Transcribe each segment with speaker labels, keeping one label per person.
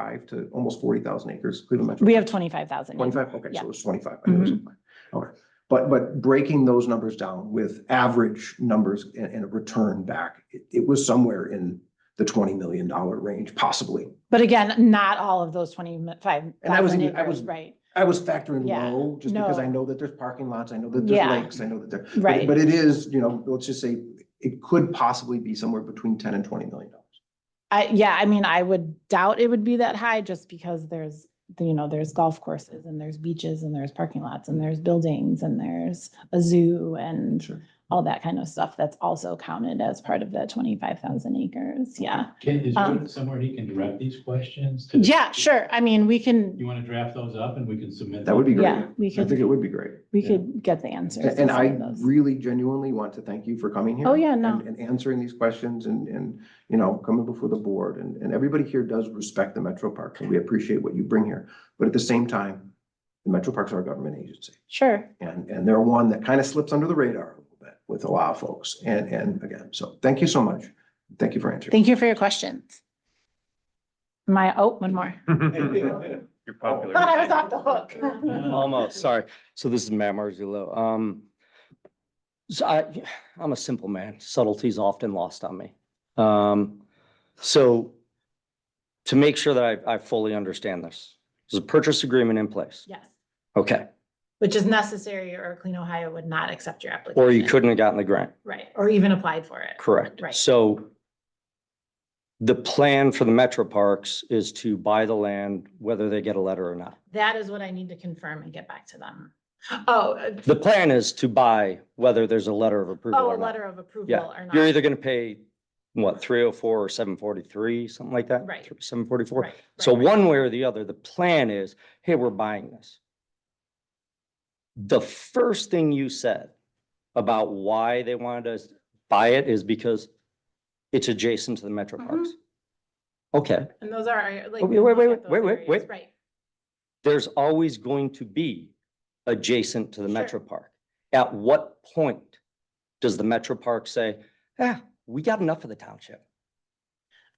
Speaker 1: five to almost forty thousand acres, Cleveland Metro.
Speaker 2: We have twenty-five thousand.
Speaker 1: Twenty-five, okay,
Speaker 2: Yeah. Mm-hmm.
Speaker 1: so it's twenty-five. I knew it was Okay, but, but breaking those numbers down with average numbers and, and a return back, it, it was somewhere in the twenty million dollar range, possibly.
Speaker 2: But again, not all of those twenty-five
Speaker 1: And I was
Speaker 2: thousand
Speaker 1: even- I
Speaker 2: acres,
Speaker 1: was-
Speaker 2: right?
Speaker 1: I was factoring
Speaker 2: Yeah,
Speaker 1: low, just because I
Speaker 2: no.
Speaker 1: know that there's parking lots, I know that there's
Speaker 2: Yeah.
Speaker 1: lakes, I know that there. but-
Speaker 2: Right.
Speaker 1: But it is, you know, let's just say, it could possibly be somewhere between ten and twenty million dollars.
Speaker 2: I, yeah, I mean, I would doubt it would be that high just because there's, you know, there's golf courses and there's beaches and there's parking lots and there's buildings and there's a zoo and
Speaker 1: Sure.
Speaker 2: all that kind of stuff that's also counted as part of that twenty-five thousand acres. Yeah.
Speaker 3: Can, is
Speaker 2: Um,
Speaker 3: there somewhere he can direct these questions? to-
Speaker 2: Yeah, sure. I mean, we can,
Speaker 3: You want to draft those up and we can submit?
Speaker 1: That would be great.
Speaker 2: yeah, we
Speaker 1: I think it
Speaker 2: could,
Speaker 1: would be great.
Speaker 2: we
Speaker 3: yeah.
Speaker 2: could get the answers.
Speaker 1: And
Speaker 2: to
Speaker 1: and
Speaker 2: some
Speaker 1: I
Speaker 2: of those.
Speaker 1: really genuinely want to thank you for coming here.
Speaker 2: Oh, yeah, no.
Speaker 1: and- And answering these questions and, and, you know, coming before the board. And, and everybody here does respect the Metro Park, and we appreciate what you bring here. But at the same time, the Metro Parks are our government agency.
Speaker 2: Sure.
Speaker 1: And, and they're one that kind of slips under the radar a little bit with a lot of folks. And, and again, so thank you so much. Thank you for answering.
Speaker 2: Thank you for your questions. My, oh, one more.
Speaker 4: You're popular.
Speaker 2: Thought I was off the hook.
Speaker 4: Almost, sorry. So this is Matt Marzullo. Um, so I, I'm a simple man. Subtlety's often lost on me. Um, so to make sure that I, I fully understand this, there's a purchase agreement in place.
Speaker 2: Yes.
Speaker 4: Okay,
Speaker 2: Which is necessary or Clean Ohio would not accept your application.
Speaker 4: or you couldn't have gotten the grant,
Speaker 2: Right, or even applied for it.
Speaker 4: correct?
Speaker 2: Right.
Speaker 4: So the plan for the metro parks is to buy the land, whether they get a letter or not.
Speaker 2: That is what I need to confirm and get back to them. Oh, uh,
Speaker 4: The plan is to buy whether there's a letter of approval
Speaker 2: oh,
Speaker 4: or
Speaker 2: a
Speaker 4: not.
Speaker 2: letter of approval
Speaker 4: Yeah,
Speaker 2: or not.
Speaker 4: You're either gonna pay, what, three oh four or seven forty-three, something like that?
Speaker 2: Right.
Speaker 4: Seven forty-four.
Speaker 2: Right,
Speaker 4: So
Speaker 2: right, right.
Speaker 4: one way or the other, the plan is, hey, we're buying this. The first thing you said about why they wanted to buy it is because it's adjacent to the metro
Speaker 2: Mhm.
Speaker 4: parks. Okay,
Speaker 2: And those are our, like.
Speaker 4: Oh, Wait,
Speaker 2: we
Speaker 4: wait,
Speaker 2: look
Speaker 4: wait,
Speaker 2: at those
Speaker 4: wait, wait,
Speaker 2: areas,
Speaker 4: wait.
Speaker 2: Right,
Speaker 4: there's always going to be adjacent to the
Speaker 2: Sure.
Speaker 4: metro park. At what point does the metro park say, ah, we got enough of the township?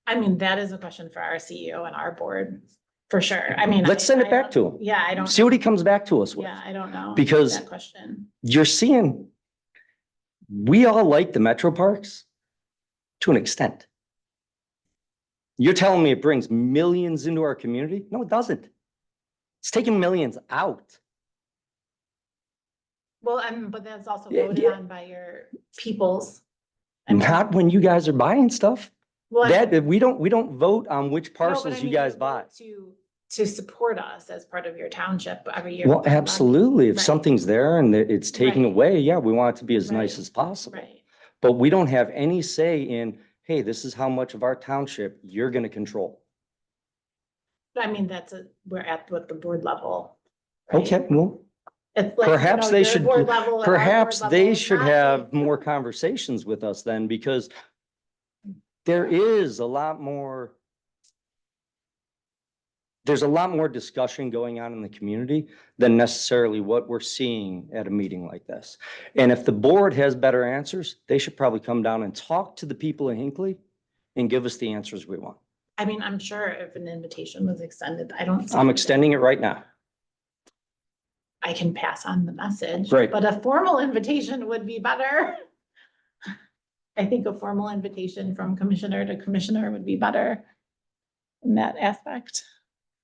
Speaker 2: I mean, that is a question for our CEO and our board, for sure. I mean.
Speaker 4: Let's
Speaker 2: I-
Speaker 4: send it
Speaker 2: I
Speaker 4: back
Speaker 2: don't-
Speaker 4: to 'em.
Speaker 2: Yeah, I don't,
Speaker 4: See what he comes back to us with.
Speaker 2: yeah, I don't know.
Speaker 4: Because-
Speaker 2: That question.
Speaker 4: You're seeing, we all like the metro parks to an extent. You're telling me it brings millions into our community? No, it doesn't. It's taking millions out.
Speaker 2: Well, and, but that's also
Speaker 4: Yeah,
Speaker 2: voted
Speaker 4: yeah.
Speaker 2: on by your peoples. I mean,
Speaker 4: Not when you guys are buying stuff.
Speaker 2: well, I-
Speaker 4: That, we don't, we don't vote on which
Speaker 2: No, but I
Speaker 4: parcels you
Speaker 2: mean,
Speaker 4: guys
Speaker 2: vote
Speaker 4: buy.
Speaker 2: To, to support us as part of your township every year.
Speaker 4: Well,
Speaker 2: with that money.
Speaker 4: absolutely. If
Speaker 2: Right.
Speaker 4: something's there and it- it's taken
Speaker 2: Right.
Speaker 4: away, yeah, we want it to be as
Speaker 2: Right.
Speaker 4: nice as possible.
Speaker 2: Right,
Speaker 4: But we don't have any say in, hey, this is how much of our township you're going to control.
Speaker 2: but I mean, that's a, we're at what the board level. right?
Speaker 4: Okay, well,
Speaker 2: It's like, you
Speaker 4: Perhaps
Speaker 2: know,
Speaker 4: they
Speaker 2: your
Speaker 4: should-
Speaker 2: board level and our board
Speaker 4: Perhaps
Speaker 2: level
Speaker 4: they
Speaker 2: is
Speaker 4: should
Speaker 2: not-
Speaker 4: have more conversations with us then, because there is a lot more, there's a lot more discussion going on in the community than necessarily what we're seeing at a meeting like this. And if the board has better answers, they should probably come down and talk to the people in Hinkley and give us the answers we want.
Speaker 2: I mean, I'm sure if an invitation was extended, I don't. see
Speaker 4: I'm
Speaker 2: that
Speaker 4: extending it right now.
Speaker 2: I can pass on the message.
Speaker 4: Great.
Speaker 2: But a formal invitation would be better. I think a formal invitation from commissioner to commissioner would be better in that aspect.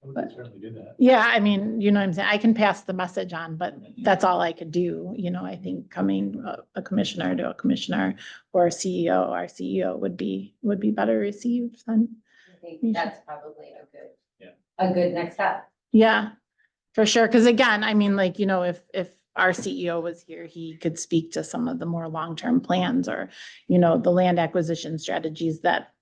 Speaker 3: We can certainly do that.
Speaker 2: Yeah, I mean, you know what I'm saying? I can pass the message on, but that's all I could do. You know, I think coming a- a commissioner to a commissioner or a CEO, our CEO would be, would be better received than,
Speaker 5: I think
Speaker 2: Yeah.
Speaker 5: that's probably a good.
Speaker 3: Yeah.
Speaker 5: A good next step.
Speaker 2: yeah, for sure. Because again, I mean, like, you know, if, if our CEO was here, he could speak to some of the more long-term plans or, you know, the land acquisition strategies that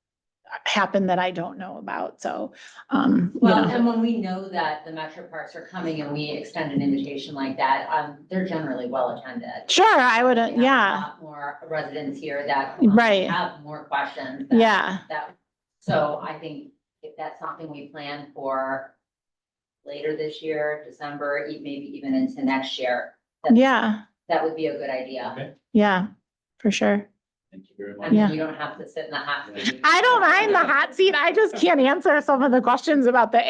Speaker 2: happen that I don't know about. So, um, you
Speaker 5: Well,
Speaker 2: know,
Speaker 5: and when we know that the metro parks are coming and we extend an invitation like that, um, they're generally well attended.
Speaker 2: sure, I would, uh,
Speaker 5: We have a
Speaker 2: yeah,
Speaker 5: lot More residents here that.
Speaker 2: Right.
Speaker 5: Have more questions. that-
Speaker 2: yeah.
Speaker 5: That, so I think if that's something we plan for later this year, December, e- maybe even into next year,
Speaker 2: Yeah,
Speaker 5: that would be a good idea.
Speaker 3: Okay,
Speaker 2: yeah, for sure.
Speaker 3: thank you very
Speaker 5: I
Speaker 3: much.
Speaker 2: Yeah.
Speaker 5: mean, you don't have to sit in the hot. seat.
Speaker 2: I don't mind the hot seat. I just can't answer some of the questions about the